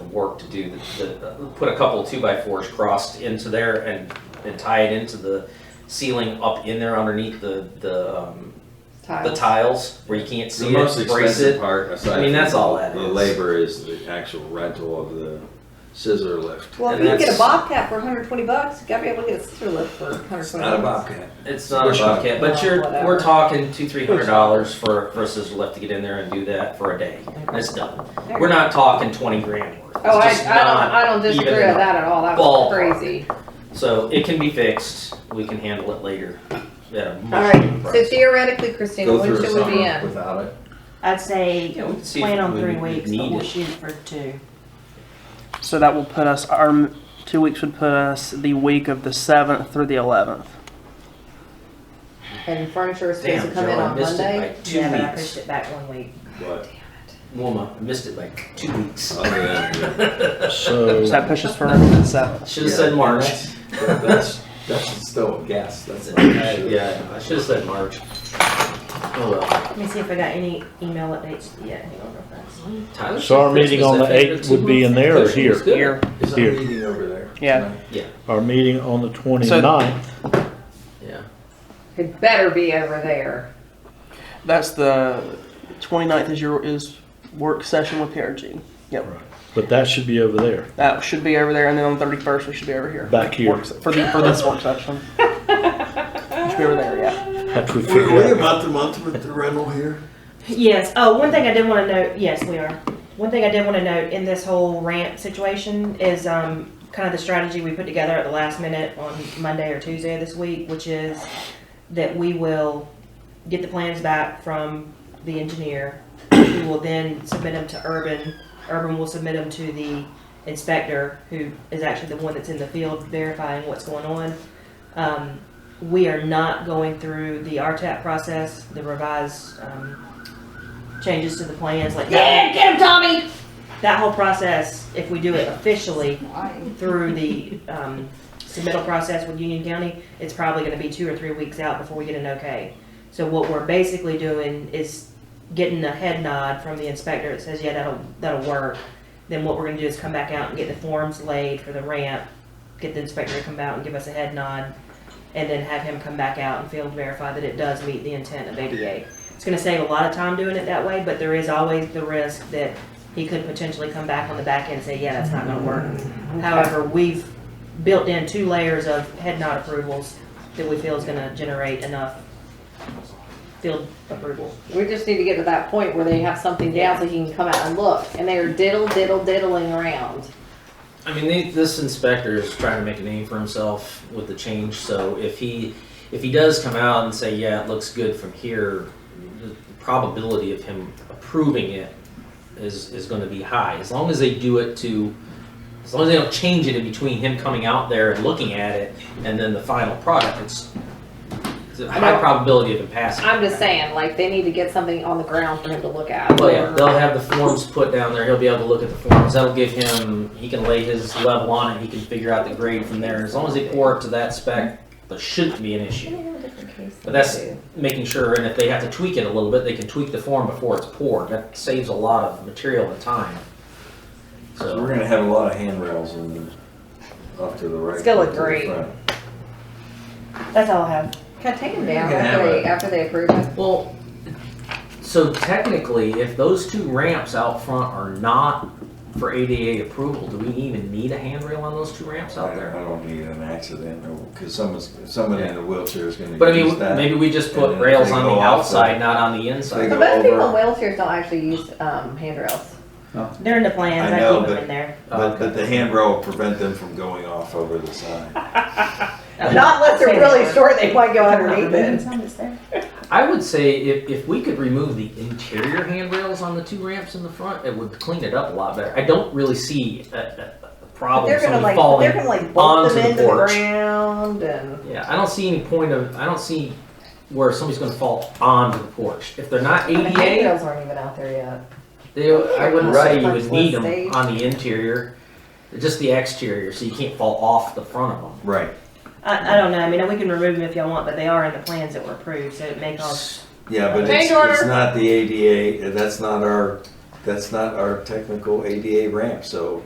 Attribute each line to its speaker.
Speaker 1: some work to do, the, the, put a couple two by fours crossed into there and, and tie it into the ceiling up in there underneath the, the, um, the tiles where you can't
Speaker 2: The
Speaker 1: see
Speaker 2: most
Speaker 1: it, brace
Speaker 2: expensive
Speaker 1: it.
Speaker 2: part, aside
Speaker 1: I mean, that's
Speaker 2: from
Speaker 1: all that
Speaker 2: The
Speaker 1: is.
Speaker 2: labor is the actual rental of the scissor lift.
Speaker 3: Well, if
Speaker 1: And
Speaker 3: you can get
Speaker 1: that's-
Speaker 3: a Bobcat for hundred and twenty bucks, you gotta be able to get a scissor lift for hundred and twenty bucks.
Speaker 2: It's not a bobcat.
Speaker 1: It's not a
Speaker 2: Workshop.
Speaker 1: bucket, but
Speaker 3: Well,
Speaker 1: you're,
Speaker 3: whatever.
Speaker 1: we're talking two, three hundred dollars for, for a scissor lift to get in there and do that for a day. And It's done.
Speaker 3: There you
Speaker 1: We're
Speaker 3: go.
Speaker 1: not talking twenty grand worth. It's
Speaker 3: Oh, I, I
Speaker 1: just
Speaker 3: don't,
Speaker 1: not-
Speaker 3: I don't disagree
Speaker 1: even
Speaker 3: with that at all, that was
Speaker 1: ballpark.
Speaker 3: crazy.
Speaker 1: So it can be fixed. We can handle it later. Yeah.
Speaker 3: Alright, so theoretically, Christina,
Speaker 2: Go
Speaker 3: when
Speaker 2: through a
Speaker 3: should we be
Speaker 2: summer
Speaker 3: in?
Speaker 2: without it.
Speaker 4: I'd say
Speaker 1: Yeah, we can see
Speaker 4: plan
Speaker 1: if
Speaker 4: on
Speaker 1: we
Speaker 4: three
Speaker 1: would
Speaker 4: weeks, but
Speaker 1: need
Speaker 4: we'll
Speaker 1: it.
Speaker 4: shoot for two.
Speaker 5: So that will put us, our m- two weeks would put us the week of the 7th through the 11th.
Speaker 3: And furniture is supposed
Speaker 1: Damn,
Speaker 3: to
Speaker 1: Joe,
Speaker 3: come in
Speaker 1: I
Speaker 3: on
Speaker 1: missed it
Speaker 3: Monday?
Speaker 1: by two
Speaker 4: Yeah, but I pushed
Speaker 1: weeks.
Speaker 4: it back one week.
Speaker 2: But
Speaker 1: Wilma, I missed it by two weeks.
Speaker 2: other than
Speaker 5: So
Speaker 6: So,
Speaker 5: that pushes for the 7th.
Speaker 1: Should have said March.
Speaker 2: that- that's that's still a guess. That's
Speaker 1: That's
Speaker 2: not for
Speaker 1: it.
Speaker 2: sure.
Speaker 1: Yeah, I should have said March. Oh well.
Speaker 4: Let me see if I got any email updates yet. Hang on real fast.
Speaker 1: Tyler
Speaker 6: so our
Speaker 1: said
Speaker 6: meeting on the
Speaker 1: Christmas, I think,
Speaker 6: 8th would be in there or
Speaker 1: Christmas
Speaker 6: here?
Speaker 1: is good.
Speaker 5: Here,
Speaker 2: Is that
Speaker 6: Here.
Speaker 2: meeting over there?
Speaker 5: Yeah.
Speaker 2: tonight?
Speaker 6: Our meeting on the 29th,
Speaker 1: Yeah.
Speaker 3: It better be over there.
Speaker 5: that's the 29th is your, is work session with PRG.
Speaker 6: but that should be over there.
Speaker 5: That should be over there, and then on the 31st, we should be over here.
Speaker 6: Back here.
Speaker 5: Works- For the, for this work session. Should be over there, yeah.
Speaker 6: That's what we
Speaker 7: Were we
Speaker 6: figured out.
Speaker 7: about the month with the rental here?
Speaker 4: Yes. Oh, one thing I did want to note. Yes, we are. One thing I did want to note in this whole rant situation is um, kind of the strategy we put together at the last minute on Monday or Tuesday of this week, which is that we will get the plans back from the engineer. We will then submit them to Urban. Urban will submit them to the inspector, who is actually the one that's in the field verifying what's going on. Um, we are not going through the RTAP process, the revised um, changes to the plans, like yeah, get him, Tommy. That whole process, if we do it officially through the um, submittal process with Union County, it's probably going to be two or three weeks out before we get an okay. So what we're basically doing is getting a head nod from the inspector that says, yeah, that'll that'll work. Then what we're going to do is come back out and get the forms laid for the ramp, get the inspector to come out and give us a head nod, and then have him come back out and field verify that it does meet the intent of ADA. It's gonna save a lot of time doing it that way, but there is always the risk that he could potentially come back on the back end and say, yeah, that's not gonna work.
Speaker 3: Mm-hmm.
Speaker 4: However, we've built in two layers of head nod approvals that we feel is gonna generate enough field approval.
Speaker 3: We just need to get to that point where they have something down so you can come out and look, and they are diddle, diddle, diddling around.
Speaker 1: I mean, they, this inspector is trying to make a name for himself with the change. So if he if he does come out and say, "Yeah, it looks good from here," the probability of him approving it is is going to be high. As long as they do it to, as long as they don't change it in between him coming out there and looking at it and then the final product, it's, it's a high
Speaker 3: know.
Speaker 1: probability of him passing.
Speaker 3: I'm just saying, like, they need to get something on the ground for him to look at.
Speaker 1: Well, yeah, they'll have the forms put down there. He'll be able to look at the forms. That'll give him, he can lay his level on it. He can figure out the grade from there. As long as they pour it to that spec, there shouldn't be an issue. But that's making sure, and if they have to tweak it a little bit, they can tweak the form before it's poured. That saves a lot of material and time.
Speaker 2: So we're
Speaker 1: So,
Speaker 2: gonna have a lot of handrails in the, off to the right.
Speaker 3: It's gonna look
Speaker 2: to the
Speaker 3: great.
Speaker 2: front.
Speaker 4: That's all I have.
Speaker 3: Can I take them down
Speaker 2: You can
Speaker 3: after
Speaker 2: have
Speaker 3: they,
Speaker 2: it.
Speaker 3: after they approve it?
Speaker 1: well, so technically, if those two ramps out front are not for ADA approval, do we even need a handrail on those two ramps
Speaker 2: I
Speaker 1: out
Speaker 2: don't,
Speaker 1: there?
Speaker 2: I don't need an accident, because someone's, someone in a wheelchair is gonna
Speaker 1: But I
Speaker 2: use
Speaker 1: mean,
Speaker 2: that.
Speaker 1: maybe we just
Speaker 2: and
Speaker 1: put
Speaker 2: then
Speaker 1: rails
Speaker 2: they
Speaker 1: on
Speaker 2: go
Speaker 1: the
Speaker 2: off the-
Speaker 1: outside, not on the inside.
Speaker 2: They
Speaker 3: But
Speaker 2: go
Speaker 3: most people in
Speaker 2: over.
Speaker 3: wheelchairs don't actually use, um, handrails.
Speaker 4: They're in the plans,
Speaker 2: I
Speaker 4: I
Speaker 2: know,
Speaker 4: keep them
Speaker 2: but-
Speaker 4: in there.
Speaker 2: But, but the handrail will prevent them from going off over the side.
Speaker 3: Not unless they're really short, they might go underneath it.
Speaker 1: I would say if, if we could remove the interior handrails on the two ramps in the front, it would clean it up a lot better. I don't really see a, a, a
Speaker 3: But
Speaker 1: problem
Speaker 3: They're gonna
Speaker 1: somebody
Speaker 3: like, but
Speaker 1: falling.
Speaker 3: they're gonna like bolt
Speaker 1: onto the
Speaker 3: them into the
Speaker 1: porch.
Speaker 3: ground and.
Speaker 1: Yeah, I don't see any point of, I don't see where somebody's gonna fall onto the porch. If they're not ADA,
Speaker 3: aren't even out there yet.
Speaker 1: they, I wouldn't
Speaker 3: Right.
Speaker 1: say you would need
Speaker 3: They-
Speaker 1: them on the interior. Just the exterior, so you can't fall off the front of them.
Speaker 2: Right,
Speaker 4: I, I don't know, I mean, we can remove them if y'all want, but they are in the plans that were approved, so it may
Speaker 3: Oh,
Speaker 4: cause
Speaker 2: yeah, but it's,
Speaker 3: Change order.
Speaker 2: it's not the ADA, that's not our, that's not our technical ADA ramp, so